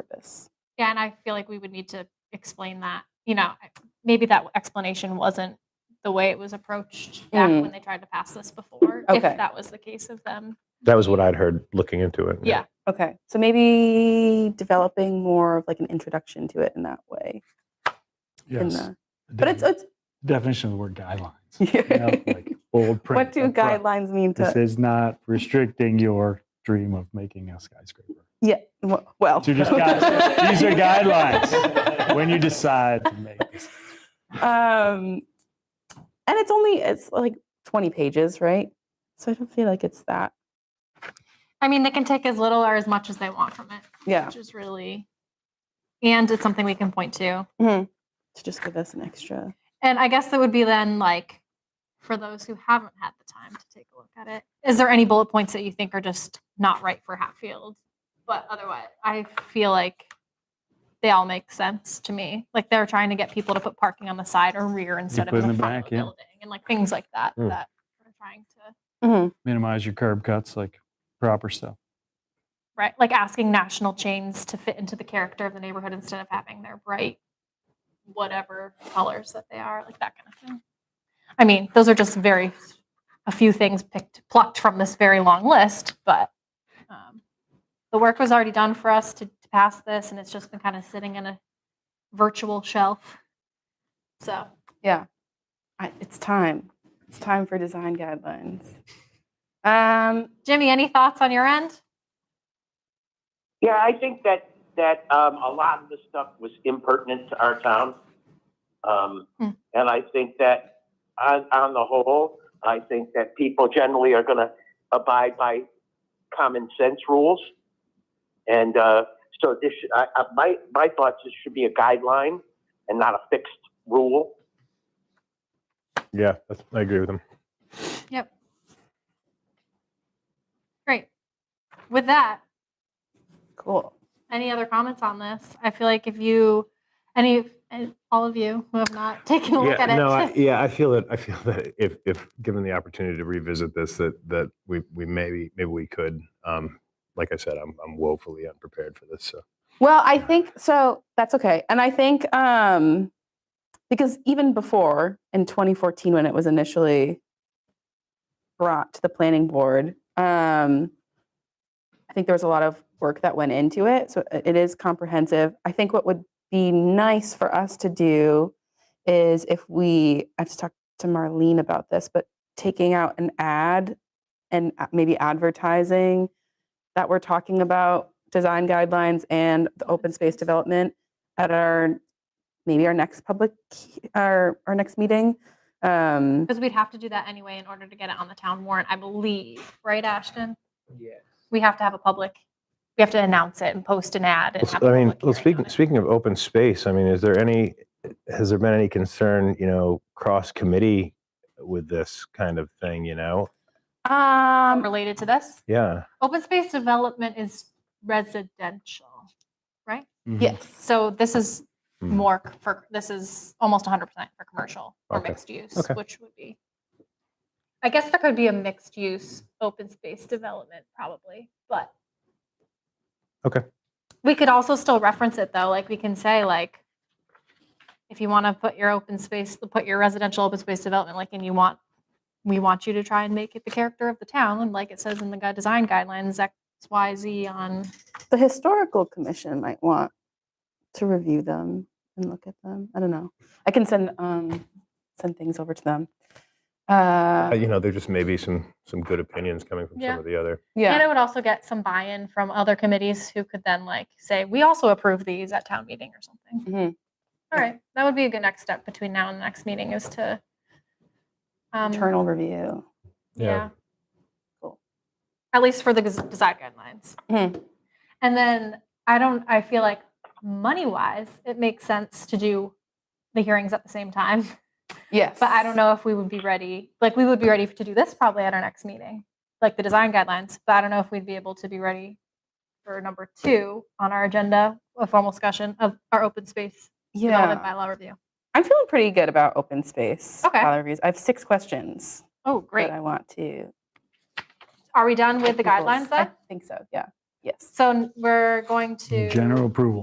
purpose. Yeah, and I feel like we would need to explain that. You know, I- maybe that explanation wasn't the way it was approached back Mm. when they tried to pass this before. If Okay. that was the case of them, That was what I'd heard looking into it. yeah, Okay. So maybe developing more of like an introduction to it in that way. in Yes. the- but it's, it's definition of the word guidelines. you know, like bold print. what do up front. guidelines mean This to is not restricting your dream of making a skyscraper. yeah w- well These are just guidelines. These are guidelines when you decide to make this. um and it's only it's like 20 pages right so i don't feel like it's that I mean, they can take as little or as much as they want from it, yeah which is really, and it's something we can point to. mm-hmm, to just give us an extra And I guess that would be then like for those who haven't had the time to take a look at it. Is there any bullet points that you think are just not right for Hatfield? But otherwise, I feel like they all make sense to me. Like they're trying to get people to put parking on the side or rear instead of in put in the, the front of back, the yeah. building and like things like that Mm. that we're trying to Mhm. Minimize your curb cuts, like proper stuff. right like asking national chains to fit into the character of the neighborhood instead of having their bright whatever colors that they are like that kind of thing i mean those are just very a few things picked plucked from this very long list but um, the work was already done for us to, to pass this and it's just been kind of sitting in a virtual shelf so yeah I, it's time it's time for design guidelines um jimmy any thoughts on your end Yeah, I think that, that um, a lot of the stuff was impertinent to our town. Um, Hmm. And I think that on, on the whole, I think that people generally are going to abide by common sense rules. And uh, so this, should- I, I, my, my thoughts, this should be a guideline and not a fixed rule. Yeah, that's, I agree with him. great with that cool any other comments on this? I feel like if you, any, and all of you who have not taken a look Yeah, at it, no, I, yeah, I feel that. I feel that if, if given the opportunity to revisit this, that that we we maybe maybe we could. Um, like I said, I'm I'm woefully unprepared for this. So Well, I think so. That's okay. And I think um, because even before in 2014, when it was initially brought to the planning board, um, I think there was a lot of work that went into it. So i- it is comprehensive. I think what would be nice for us to do is if we, I have to talk to Marlene about this, but taking out an ad and a- maybe advertising that we're talking about design guidelines and the open space development at our maybe our next public he- our our next meeting um because we'd have to do that anyway in order to get it on the town warrant, I believe, right, Ashton? We have to have a public, we have to announce it and post an ad. and Well, s- have a I mean, public hearing on well, speaking, it. speaking of open space, I mean, is there any, has there been any concern, you know, cross committee with this kind of thing, you know? um Related to this, Yeah. open space development is residential, right? Mhm. yes So this is Hmm. more c- for, this is almost 100% for commercial or Okay. mixed use, Okay. which would be, I guess there could be a mixed use open space development probably, but. Okay. We could also still reference it though, like we can say like, if you want to put your open space, put your residential open space development, like, and you want, we want you to try and make it the character of the town, like it says in the gui- design guidelines, X, Y, Z on the historical commission might want to review them and look at them i don't know i can send um send things over to them Uh, uh You know, there just may be some, some good opinions coming from Yeah. some of the other. And yeah it would also get some buy-in from other committees who could then like say, we also approve these at town meeting or something. Mhm. All right, that would be a good next step between now and the next meeting is to. Um, internal review Yeah. Yeah. Cool. At least for the gus- design guidelines. Mhm. And then I don't, I feel like money-wise, it makes sense to do the hearings at the same time. yes But I don't know if we would be ready, like, we would be ready to do this probably at our next meeting, like the design guidelines, but I don't know if we'd be able to be ready for number two on our agenda, a formal discussion of our open space development yeah bylaw review. i'm feeling pretty good about open space Okay. bylaw reviews i have six questions Oh, great. that i want to Are we done with the people's- guidelines I then? think so. Yeah. Yes. So n- we're going to. Mm-hmm. General approval.